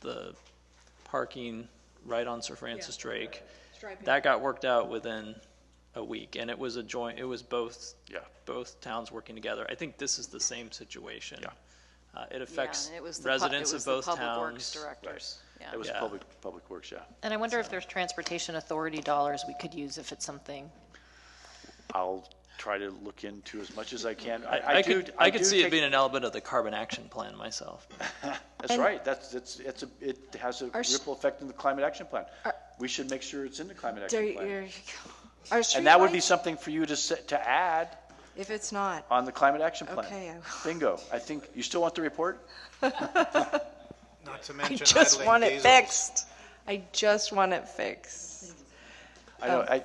the parking right on Sir Francis Drake. Striping. That got worked out within a week, and it was a joint, it was both, Yeah. both towns working together. I think this is the same situation. Yeah. Uh, it Yeah, affects and it was the pu- it residents of was the both towns. Public Works Directors, yeah. It was Yeah. public, public works, yeah. And I wonder if there's transportation authority dollars we could use if it's something. I'll try to look into as much as I can. I, I do- could, I could do see it take- being an element of the carbon action plan myself. That's right, that's, it's, it's, a- it has a s- ripple effect in the climate action plan. We should make sure it's in the climate There action you there plan. you go. Are And that would be streetlights- something for you to, se- to add If it's not, on the climate action plan. Okay, I will. Bingo. I think, you still want the report? Not to I mention just want idling it diesel. fixed. I just want it fixed. I know, I,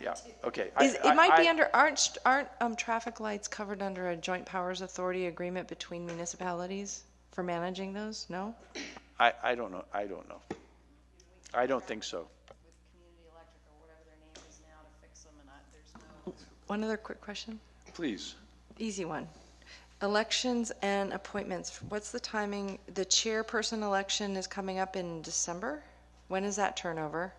yeah, okay. I- Oh. Is, I- it might be I- under, aren't, st- aren't, um, traffic lights covered under a joint powers authority agreement between municipalities for managing those? No? I, I don't know, I don't know. I don't think so. with Community Electric or whatever their name is now to fix them, and I, there's no, One other quick question, Please. easy one. Elections and appointments, what's the timing? The chairperson election is coming up in December? When is that turnover?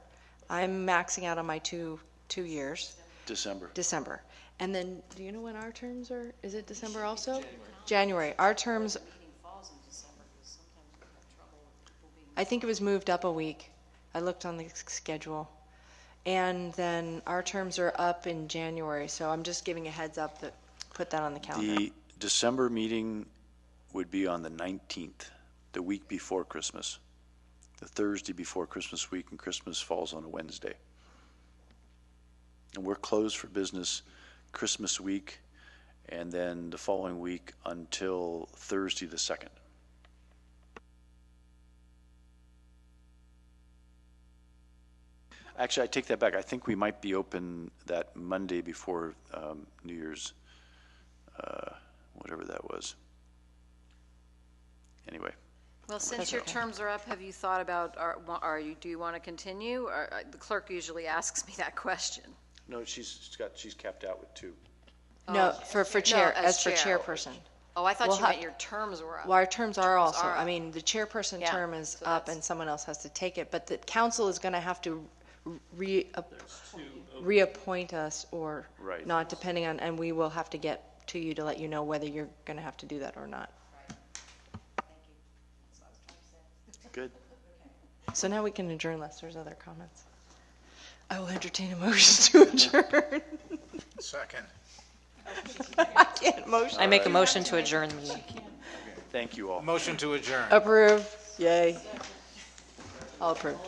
I'm maxing out on my two, two years. December. December. And then, do you know when our terms are? Is it December also? January. Our terms, meeting falls in December, because sometimes we have trouble with people being I think it was moved up a week. I looked on the s- schedule. And then our terms are up in January, so I'm just giving a heads up that, put that on the calendar. The December meeting would be on the 19th, the week before Christmas, the Thursday before Christmas week, and Christmas falls on a Wednesday. And we're closed for business Christmas week, and then the following week until Thursday, the 2nd. Actually, I take that back. I think we might be open that Monday before um, New Year's whatever that was. Anyway, Well, since your terms are up, have you thought about, are, wa- are you, do you want to continue? Or, uh, the clerk usually asks me that question. no, she's, she's got, she's capped out with two. No, for, for chair, as as for chair. chairperson. Oh, I thought We'll you have- meant your terms were up. Well, our terms are also, are I up. mean, the chairperson Yeah, term is so up that's- and someone else has to take it, but the council is gonna have to re, reappoint us or Right. not, depending on, and we will have to get to you to let you know whether you're gonna have to do that or not. Good. So now we can adjourn unless there's other comments. I will entertain a motion to adjourn. Second. I can't motion. I make a motion to adjourn the meeting. Thank you all. Motion to adjourn. Approve, yay. All approved.